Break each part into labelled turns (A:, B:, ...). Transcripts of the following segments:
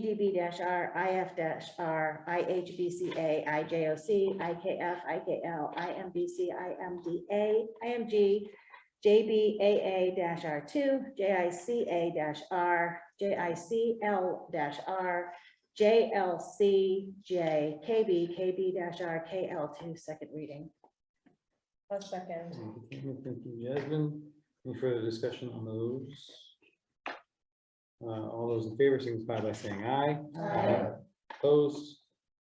A: GDB R, IF R, IHBCA, IJOC, IKF, IKL, IMBC, IMDA, IMG, JBAA R two, JICA R, JICL R, JLC, J, KB, R, KL two, second reading.
B: I'll second.
C: Thank you, Jasmine. Any further discussion on those? Uh, all those in favor signify by saying aye.
A: Aye.
C: Opposed,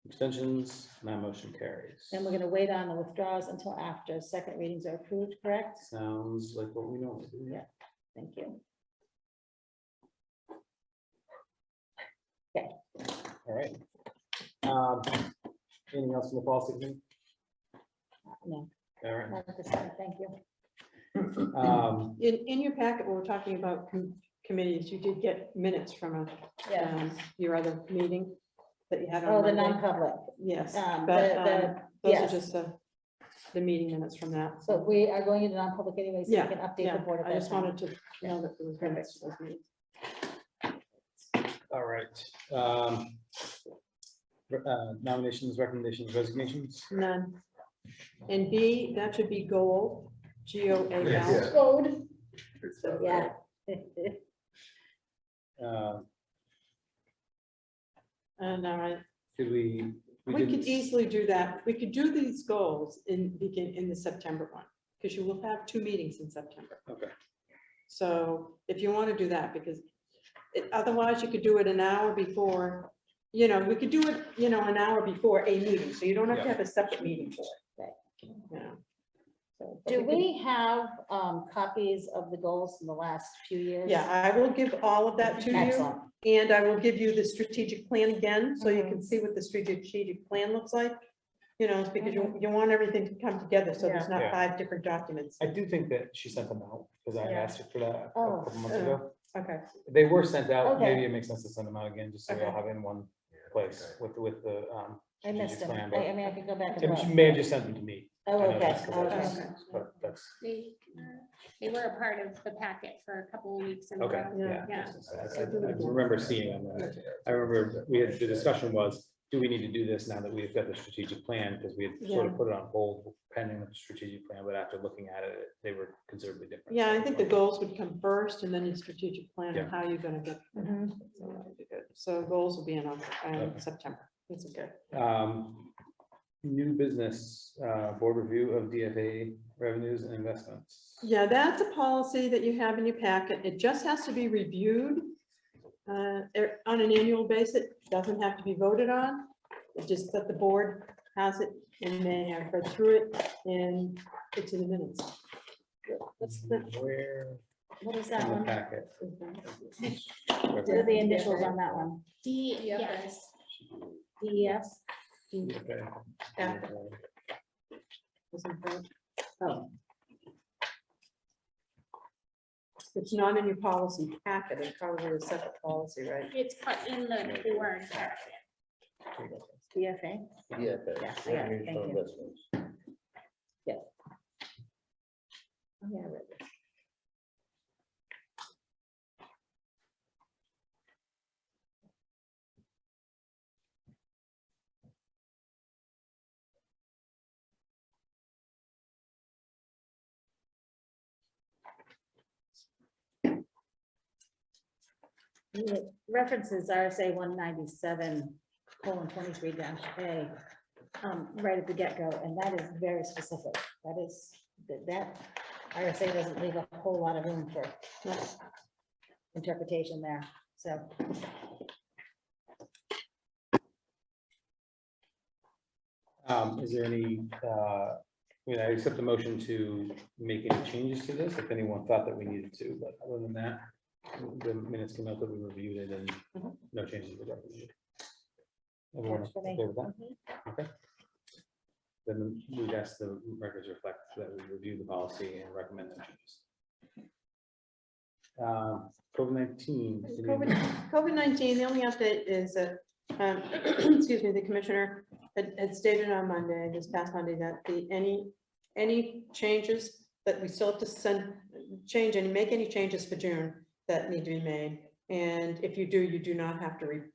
C: abstentions, my motion carries.
A: And we're gonna wait on the withdrawals until after second readings are approved, correct?
C: Sounds like what we normally do.
A: Yeah. Thank you.
C: All right. Um, anything else in the policy committee?
A: No.
C: All right.
A: Not at this time, Thank you.
C: Um,
D: In, in your packet, when we're talking about com- committees, you did get minutes from a,
B: Yeah,
D: um, your other meeting that you had on.
A: Oh, the
D: Monday.
A: non-public.
D: Yes,
A: um,
D: but,
A: the- the-
D: um, those are
A: yes.
D: just the, the meeting minutes from that.
A: So we are going into non-public anyway, so we
D: Yeah,
A: can update
D: Yeah,
A: the board at
D: I
A: that
D: just
A: time.
D: wanted to know that there was minutes to those meetings.
C: all right. Um, re- uh, nominations, recommendations, resignations.
D: None. And B, that should be goal, G O A L.
E: Yeah.
A: Code.
D: So-
A: Yeah.
C: Uh,
D: And, uh,
C: did we?
D: we could
C: didn't-
D: easily do that. We could do these goals in, begin in the September one, because you will have two meetings in September.
C: Okay.
D: So if you want to do that, because it- otherwise you could do it an hour before, you know, we could do it, you know, an hour before a meeting, so you don't have to
C: Yeah.
D: have a separate meeting for it.
A: Right.
D: You know, so, but
A: Do
D: could-
A: we have um, copies of the goals from the last few years?
D: Yeah, I will give all of that to
A: Excellent.
D: you, and I will give you the strategic plan again, so you can see what the strategic plan looks like. You know, because you, you want everything to come together, so there's
C: Yeah.
D: not five different documents.
C: I do think that she sent them out, because I
B: Yeah.
C: asked her for that a
A: Oh,
C: couple months
D: uh,
C: ago.
D: Okay,
C: They were sent out,
A: Okay.
C: maybe it makes sense to send them out again, just so we all
D: Okay.
C: have it in one place with, with the, um.
A: I missed
C: strategic
A: them.
C: plan,
A: I I mean, I could go back
C: but-
A: and
C: and
A: look.
C: She may have just sent them to me,
A: Oh,
C: I know
A: okay.
C: that's the
A: okay.
D: okay.
C: but that's,
F: They, uh, they were a part of the packet for a couple of weeks in a
C: okay,
F: row.
C: yeah.
F: Yeah.
C: I I remember seeing them, and I remember, we had, the discussion was, do we need to do this now that we've got the strategic plan? Because we had sort of
D: Yeah.
C: put it on hold pending the strategic plan, but after looking at it, they were considerably different.
D: yeah, I think the goals would come first, and then your strategic plan,
C: Yeah.
D: and how you're gonna get.
A: Mhm.
D: so that would be good. So goals will be in, Oc-
C: Okay.
D: um, September, that's good.
C: Um, new business, uh, board review of DFA revenues and investments.
D: Yeah, that's a policy that you have in your packet. It just has to be reviewed uh, er- on an annual basis. It Doesn't have to be voted on. It's just that the board has it and they have read through it and it's in the minutes. That's the-
C: Where
A: What is that
C: in the
A: one?
C: packet?
A: What are the initials on that one? E
F: D,
B: Yeah.
F: yes.
A: DES?
C: Okay.
D: Yeah. it's in front.
A: Oh,
D: It's not in your policy packet. It's probably a separate policy, right?
F: It's part in the, the word. packet.
A: DFA?
G: Yeah.
A: Yeah, I got it. Thank you. Oh, yeah, I read this. It References RSA one ninety-seven colon twenty-three dash A, um, right at the get-go, and that is very specific. That is, that- that RSA doesn't leave a whole lot of room for interpretation there, so.
C: Um, is there any, uh, you know, I accept the motion to make any changes to this, if anyone thought that we needed to, but other than that, the minutes came out that we reviewed it and
D: Mhm.
C: no changes were done. Everyone
A: Works for me.
C: okay with that? Okay. Then we'd ask the records reflect that we review the policy and recommend the changes. Um, COVID nineteen.
D: COVID nineteen, the only update is that, um, excuse me, the commissioner had, had stated on Monday, this past Monday, that the, any, any changes that we still have to send, change and make any changes for June that need to be made. And if you do, you do not have to re-